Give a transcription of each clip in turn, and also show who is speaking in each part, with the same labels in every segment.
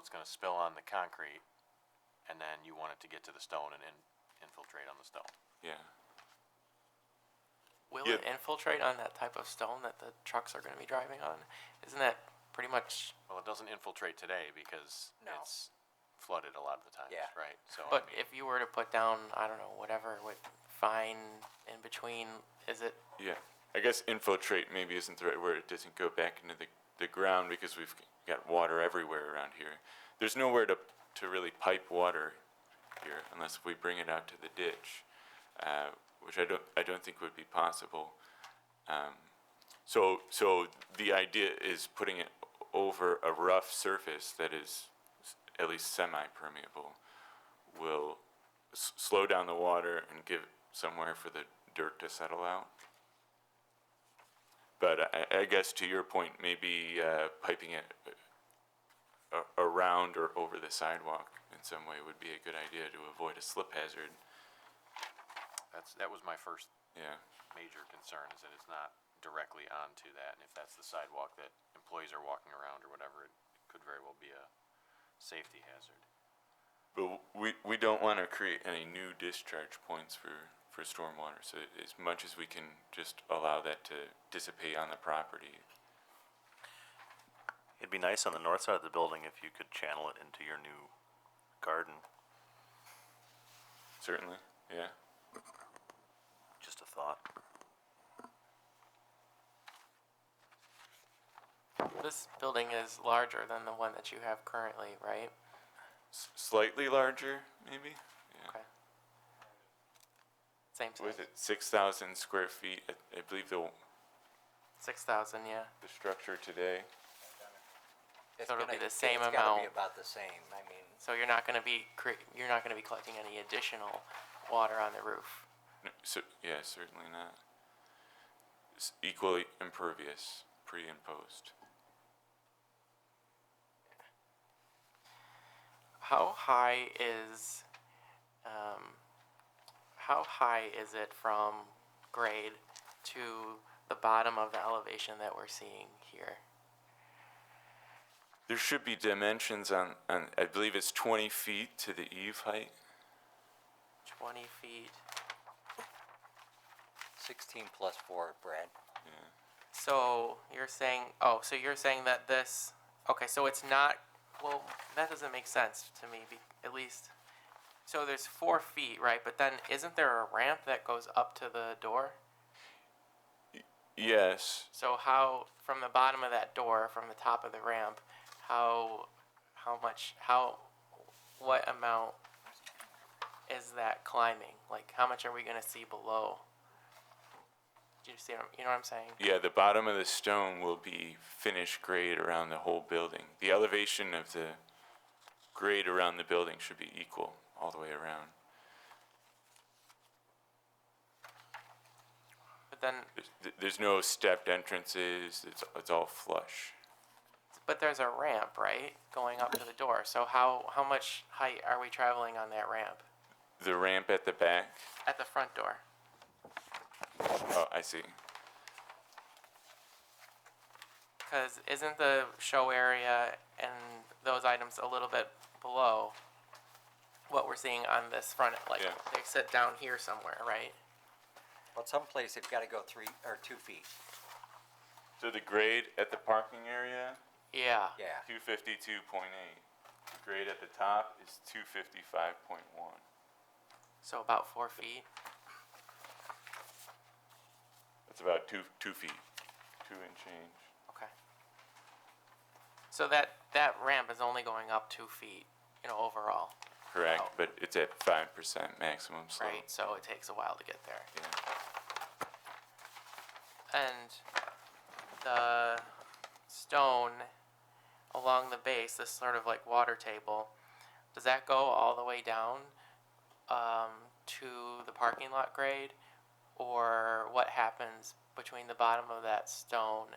Speaker 1: it's gonna spill on the concrete, and then you want it to get to the stone and in- infiltrate on the stone.
Speaker 2: Yeah.
Speaker 3: Will
Speaker 2: Yeah.
Speaker 3: it infiltrate on that type of stone that the trucks are going to be driving on? Isn't that pretty much?
Speaker 1: Well, it doesn't infiltrate today because
Speaker 4: No.
Speaker 1: it's flooded a lot of the times,
Speaker 4: Yeah.
Speaker 1: right? So, I
Speaker 3: But
Speaker 1: mean,
Speaker 3: if you were to put down, I don't know, whatever with fine in between, is it?
Speaker 2: Yeah. I guess infiltrate maybe isn't the right word. It doesn't go back into the, the ground because we've got water everywhere around here. There's nowhere to, to really pipe water here unless we bring it out to the ditch, uh, which I don't, I don't think would be possible. Um, so, so the idea is putting it over a rough surface that is s- at least semi-permeable will s- slow down the water and give somewhere for the dirt to settle out. But I, I guess to your point, maybe uh, piping it uh, a- around or over the sidewalk in some way would be a good idea to avoid a slip hazard.
Speaker 1: that's, that was my first
Speaker 2: Yeah,
Speaker 1: major concern is that it's not directly onto that, and if that's the sidewalk that employees are walking around or whatever, it could very well be a safety hazard.
Speaker 2: but we, we don't want to create any new discharge points for, for stormwater. So as much as we can, just allow that to dissipate on the property.
Speaker 5: It'd be nice on the north side of the building if you could channel it into your new garden.
Speaker 2: Certainly, yeah.
Speaker 5: Just a thought.
Speaker 3: This building is larger than the one that you have currently, right?
Speaker 2: S- slightly larger, maybe. Yeah.
Speaker 3: Okay. Same
Speaker 2: What is
Speaker 3: size.
Speaker 2: it? Six thousand square feet. I, I believe the
Speaker 3: Six thousand, yeah.
Speaker 2: the structure today.
Speaker 4: It's
Speaker 3: So it'll
Speaker 4: gonna-
Speaker 3: be the same
Speaker 4: It's gotta
Speaker 3: amount.
Speaker 4: be about the same, I mean,
Speaker 3: So you're not going to be cre- you're not going to be collecting any additional water on the roof.
Speaker 2: No, so yeah, certainly not. It's equally impervious, pre and post.
Speaker 3: How high is, um, how high is it from grade to the bottom of the elevation that we're seeing here?
Speaker 2: There should be dimensions on, on. I believe it's twenty feet to the eave height.
Speaker 3: Twenty feet.
Speaker 4: sixteen plus four, Brad.
Speaker 3: So you're saying, oh, so you're saying that this, okay, so it's not, well, that doesn't make sense to me, be, at least. So there's four feet, right? But then isn't there a ramp that goes up to the door?
Speaker 2: Yes.
Speaker 3: So how from the bottom of that door, from the top of the ramp, how how much how what amount is that climbing? Like how much are we gonna see below? Do you see what I'm- you know what I'm saying?
Speaker 2: Yeah, the bottom of the stone will be finish grade around the whole building. The elevation of the grade around the building should be equal all the way around.
Speaker 3: But then
Speaker 2: There's, th- there's no stepped entrances. It's, it's all flush.
Speaker 3: but there's a ramp, right? Going up to the door. So how how much height are we traveling on that ramp?
Speaker 2: The ramp at the back.
Speaker 3: At the front door.
Speaker 2: Oh, I see.
Speaker 3: Cause isn't the show area and those items a little bit below what we're seeing on this front, like,
Speaker 2: Yeah.
Speaker 3: they sit down here somewhere, right?
Speaker 4: But someplace they've gotta go three, or two feet,
Speaker 2: So the grade at the parking area,
Speaker 3: Yeah,
Speaker 4: yeah.
Speaker 2: 252.8. The grade at the top is 255.1.
Speaker 3: so about four feet,
Speaker 2: That's about two, two feet, two and change.
Speaker 3: okay. So that, that ramp is only going up two feet, you know, overall,
Speaker 2: Correct,
Speaker 3: Wow.
Speaker 2: but it's at 5% maximum slope.
Speaker 3: right? So it takes a while to get there.
Speaker 2: Yeah.
Speaker 3: and the stone along the base, this sort of like water table, does that go all the way down um, to the parking lot grade? Or what happens between the bottom of that stone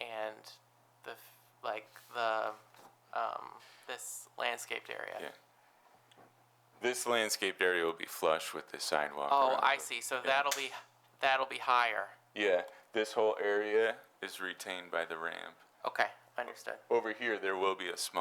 Speaker 3: and the f- like the um, this landscaped area?
Speaker 2: Yeah. This landscaped area will be flush with the sidewalk.
Speaker 3: Oh,
Speaker 2: around
Speaker 3: I
Speaker 2: the-
Speaker 3: see. So that'll be that'll be higher.
Speaker 2: Yeah, this whole area is retained by the ramp.
Speaker 3: Okay, understood.
Speaker 2: Over here, there will be a small